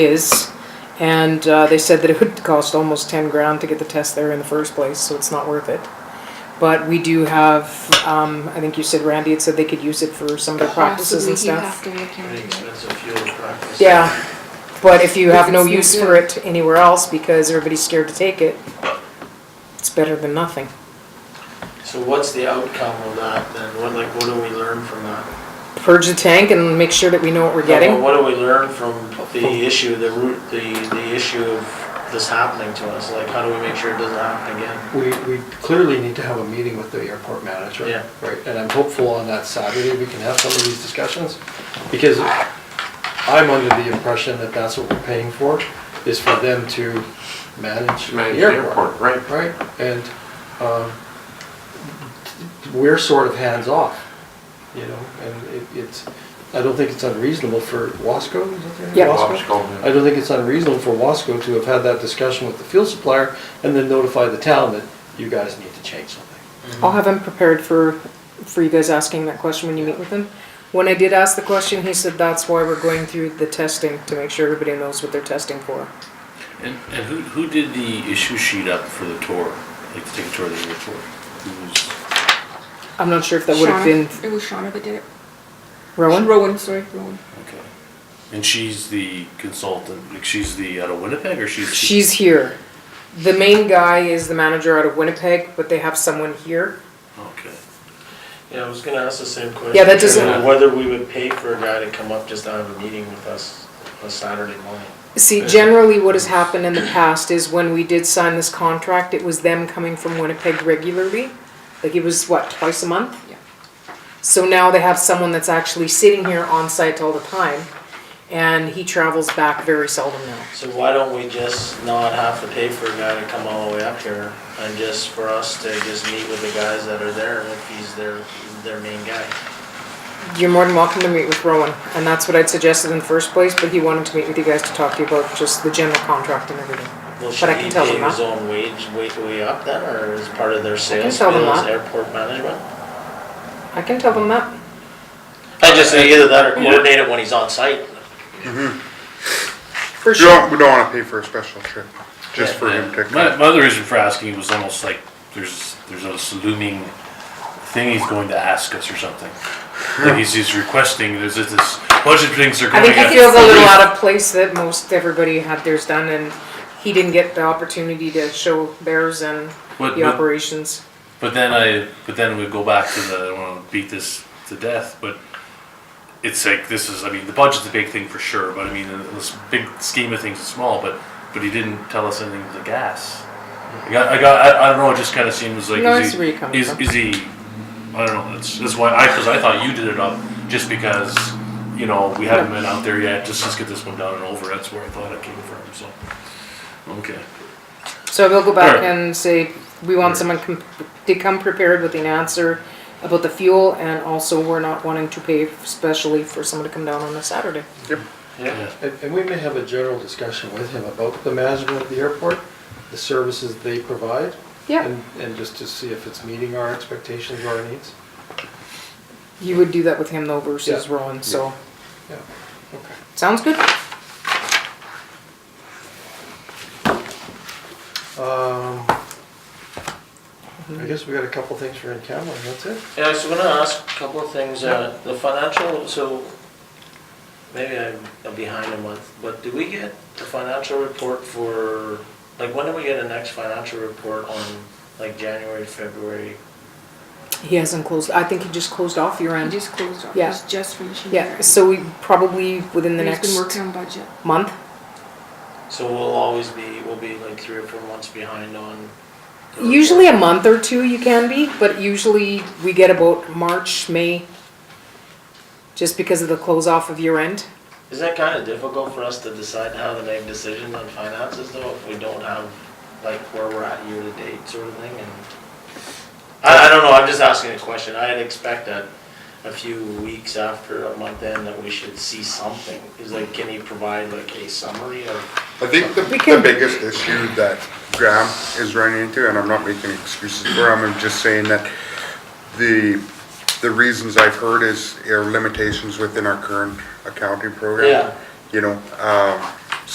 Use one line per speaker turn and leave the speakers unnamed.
is, and uh, they said that it would cost almost ten grand to get the test there in the first place, so it's not worth it. But we do have, um, I think you said Randy had said they could use it for some of their practices and stuff.
Possibly you have to look
Pretty
into it.
expensive fuel to practice.
Yeah, but if you
If
have no
it's no
use for
good.
it anywhere else because everybody's scared to take it, it's better than nothing.
So what's the outcome of that then? What, like, what do we learn from that?
Purge the tank and make sure that we know what we're
No, but
getting.
What do we learn from the issue, the root, the, the issue of this happening to us? Like, how do we make sure it doesn't happen again?
We, we clearly need to have a meeting with the airport manager.
Yeah.
Right, and I'm hopeful on that Saturday, we can have some of these discussions, because I'm under the impression that that's what we're paying for, is for them to manage the
Manage the
airport.
airport, right.
Right, and, um, we're sort of hands-off, you know, and it, it's, I don't think it's unreasonable for Wasco, is that their name?
Yeah.
Wasco?
Wasco, yeah.
I don't think it's unreasonable for Wasco to have had that discussion with the fuel supplier and then notify the town that you guys need to change something.
I'll have him prepared for, for you guys asking that question when you meet with him. When I did ask the question, he said that's why we're going through the testing, to make sure everybody knows what they're testing for.
And, and who, who did the issue sheet up for the tour, like to take a tour of the airport? Who was,
I'm not sure if that would have
Shauna-
been
It was Shauna that did it.
Rowan.
Rowan, sorry, Rowan.
okay. And she's the consultant, like she's the, out of Winnipeg or she's?
She's here. The main guy is the manager out of Winnipeg, but they have someone here.
Okay.
Yeah, I was gonna ask the same question.
Yeah, that doesn't-
uh, Whether we would pay for a guy to come up just to have a meeting with us on Saturday morning.
See, generally what has happened in the past is when we did sign this contract, it was them coming from Winnipeg regularly. Like it was what, twice a month?
Yeah.
So now they have someone that's actually sitting here on site all the time and he travels back very seldom now.
So why don't we just not have to pay for a guy to come all the way up here and just for us to just meet with the guys that are there if he's their, their main guy?
You're more than welcome to meet with Rowan and that's what I'd suggested in the first place, but he wanted to meet with you guys to talk to you about just the general contract and everything.
Well,
But
should
I can
he
tell them
pay his
that.
own wage way, way up then, or as part of their sales
tell them
bill as
that.
airport management?
I can tell them that.
I just, either that or coordinate it when he's on site.
For
We
sure.
don't, we don't wanna pay for a special trip, just for him to
Yeah. My,
come.
my other reason for asking was almost like there's, there's a looming thing he's going to ask us or something. Like he's, he's requesting, there's this this bunch of things are
I
going
think
up.
he feels a little out of place that most everybody had theirs done and he didn't get the opportunity to show theirs and
But-
the
but-
operations.
But then I, but then we go back to the, I don't want to beat this to death, but it's like, this is, I mean, the budget's a big thing for sure, but I mean, in this big scheme of things, it's small, but, but he didn't tell us anything with the gas. I got, I got, I, I don't know, it just kind of seems like,
No, I
is
see where you're
he,
coming
is,
from.
is he, I don't know, that's, that's why, I, because I thought you did it up, just because, you know, we haven't been out there yet, just let's get this one done and over, that's where I thought it came from, so. Okay,
So we'll go back
Alright.
and say, we want someone com- to come prepared with an answer about the fuel and also we're not wanting to pay specially for someone to come down on a Saturday.
Yeah.
And, and we may have a general discussion with him about the management of the airport, the services they provide.
Yeah,
And, and just to see if it's meeting our expectations or our needs.
you would do that with him though versus
Yeah.
Rowan, so,
Yeah, okay.
sounds good?
Um, I guess we got a couple things for in camera, and that's it.
Yeah, so I'm gonna ask a couple of things, uh, the financial, so maybe I'm I'm behind a month, but do we get the financial report for, like, when do we get the next financial report on, like, January, February?
He hasn't closed, I think he just closed off your
He
end.
just closed off.
Yeah.
He's just finishing.
Yeah,
there.
so we probably within the
He's been
next
working on budget.
month.
So we'll always be, we'll be like three or four months behind on. the
Usually a
report.
month or two you can be, but usually we get about March, May, just because of the close off of year end.
Is that kind of difficult for us to decide how to make decisions on finances though, if we don't have, like, where we're at year to date sort of thing and? I, I don't know, I'm just asking a question. I'd expect that a few weeks after a month in that we should see something. Is like, can you provide like a summary of?
I think the,
We can-
the biggest issue that Graham is running into, and I'm not making excuses for him, I'm just saying that the, the reasons I've heard is, are limitations within our current accounting program.
Yeah.
You know, um,